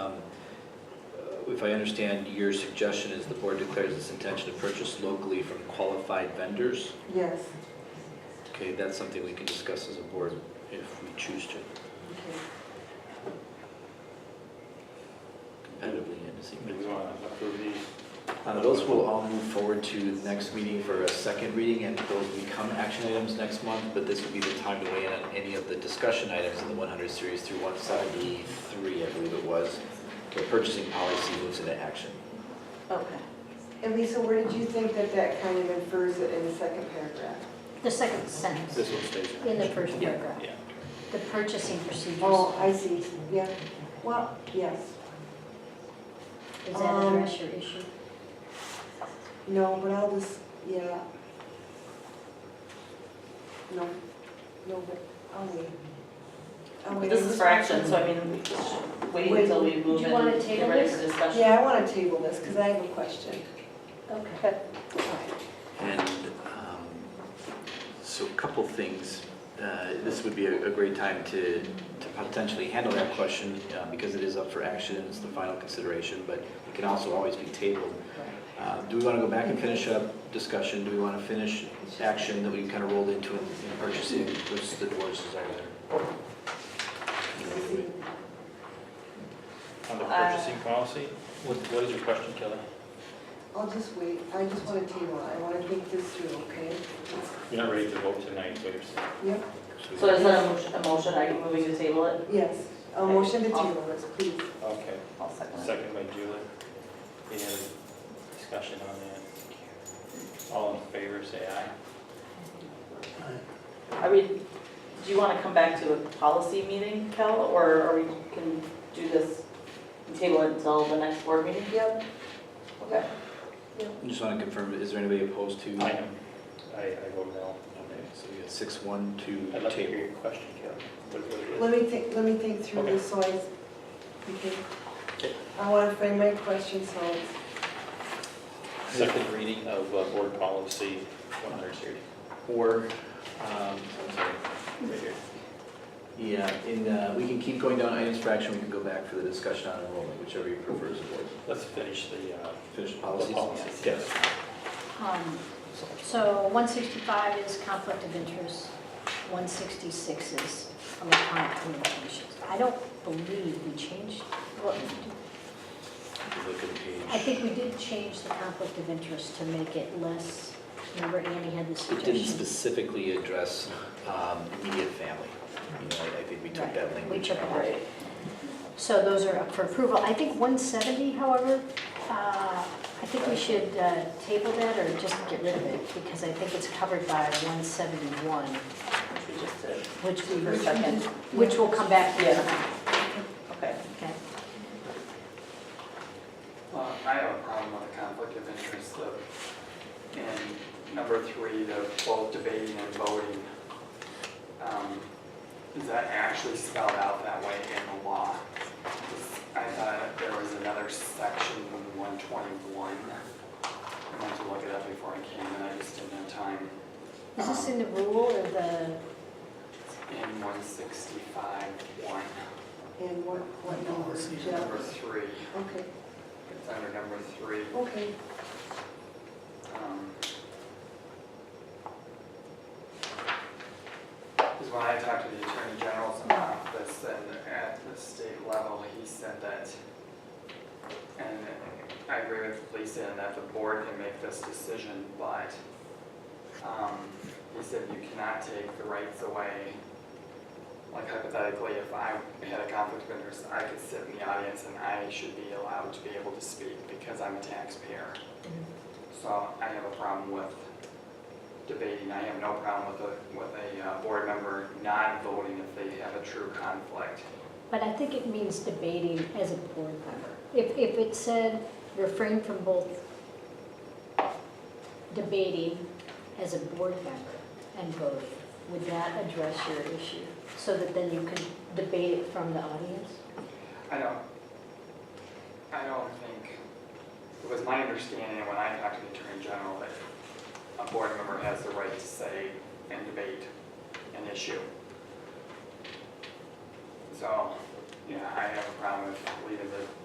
Uh, If I understand, your suggestion is the board declares its intention to purchase locally from qualified vendors? Yes, Okay, that's something we can discuss as a board if we choose to okay. competitively and as Do we a- want to approve the, Uh, Those will all move forward to the next meeting for a second reading, and those become action items next month, but this will be the time to weigh in on any of the discussion items in the 100 series through 173, I believe it was, where purchasing policy moves into action. Okay. And Lisa, where did you think that that kind of infers it in the second paragraph? The second sentence this one stays in in the action? first paragraph, Yeah. the purchasing procedures, Oh, I see, yeah, well, yes. does that um, address your issue? No, but I'll just, yeah. No, no, but I'll wait. I'll wait. This is for action, so I mean, we just wait until we move Do you and wanna get table ready this? for discussion. Yeah, I want to table this because I have a question. Okay. And um, so a couple things. Uh, This would be a a great time to to potentially handle that question uh, because it is up for action, it's the final consideration, but it can also always be tabled. Uh, Do we want to go back and finish up discussion? Do we want to finish action that we kind of rolled into in in purchasing versus the board's desire there? On the Uh, purchasing policy, what, what is your question, Kelly? I'll just wait, I just want to table it, I want to think this through, okay? You're not ready to vote tonight, so you're. saying- Yep, So is that a motion, a motion, are you moving to table it? yes, a motion to table this, please. Okay, I'll second it. second by Julie. Any other discussion on that? All in favor, say aye. Are we, do you want to come back to a policy meeting, Kel, or are we can do this, and table it until the next board meeting? Yep, Okay. I Just want to confirm, is there anybody opposed to? I am, I, I vote no. Okay, So we got six, one, two, I'd like to hear table. your question, Kelly. What- what it let me is. think, let me think through this, so I, okay. I want to frame my question, so it's- Second reading of uh, board policy 130. Or, um, I'm sorry, right here. Yeah, and uh, we can keep going down items for action, we can go back for the discussion on enrollment, whichever you prefer as a board. Let's finish the, uh, Finish the policies? policies. Yes. Um, So 165 is conflict of interest, 166 is electronic communications. I don't believe we changed, well, If you Look at page. I think we did change the conflict of interest to make it less, remember Annie had the It didn't suggestion? specifically address um, immediate family. You know, I- I think we took Right, that we language took it out. out. Right. So those are up for approval. I think 170, however, uh, I think we should uh, table that or just get rid of it because I think it's covered by 171, Which we just did. which we, For second. which will come back to. Yeah. Okay. Okay. Well, I have a problem with the conflict of interest of, in number three, the both debating and voting. Um, Is that actually spelled out that way in the law? I thought there was another section in one twenty-one. I went to look it up before I came, and I just didn't have time. Um, Is this in the rule or the, In one sixty-five, one, and what, what number, number Jeff? three, Okay, it's under number three. okay, Because when I talked to the Attorney General's office and at the state level, he said that, and I agree with Lisa in that the board can make this decision, but um, he said you cannot take the rights away. Like hypothetically, if I had a conflict of interest, I could sit in the audience and I should be allowed to be able to speak because I'm a taxpayer. So I have a problem with debating, I have no problem with a, with a uh, board member not voting if they have a true conflict. but I think it means debating as a board member. If, if it said refrain from both debating as a board member and voting, would that address your issue? So that then you could debate it from the audience? I don't, I don't think, it was my understanding when I talked to the Attorney General that a board member has the right to say and debate an issue. So, yeah, I have a problem with leaving the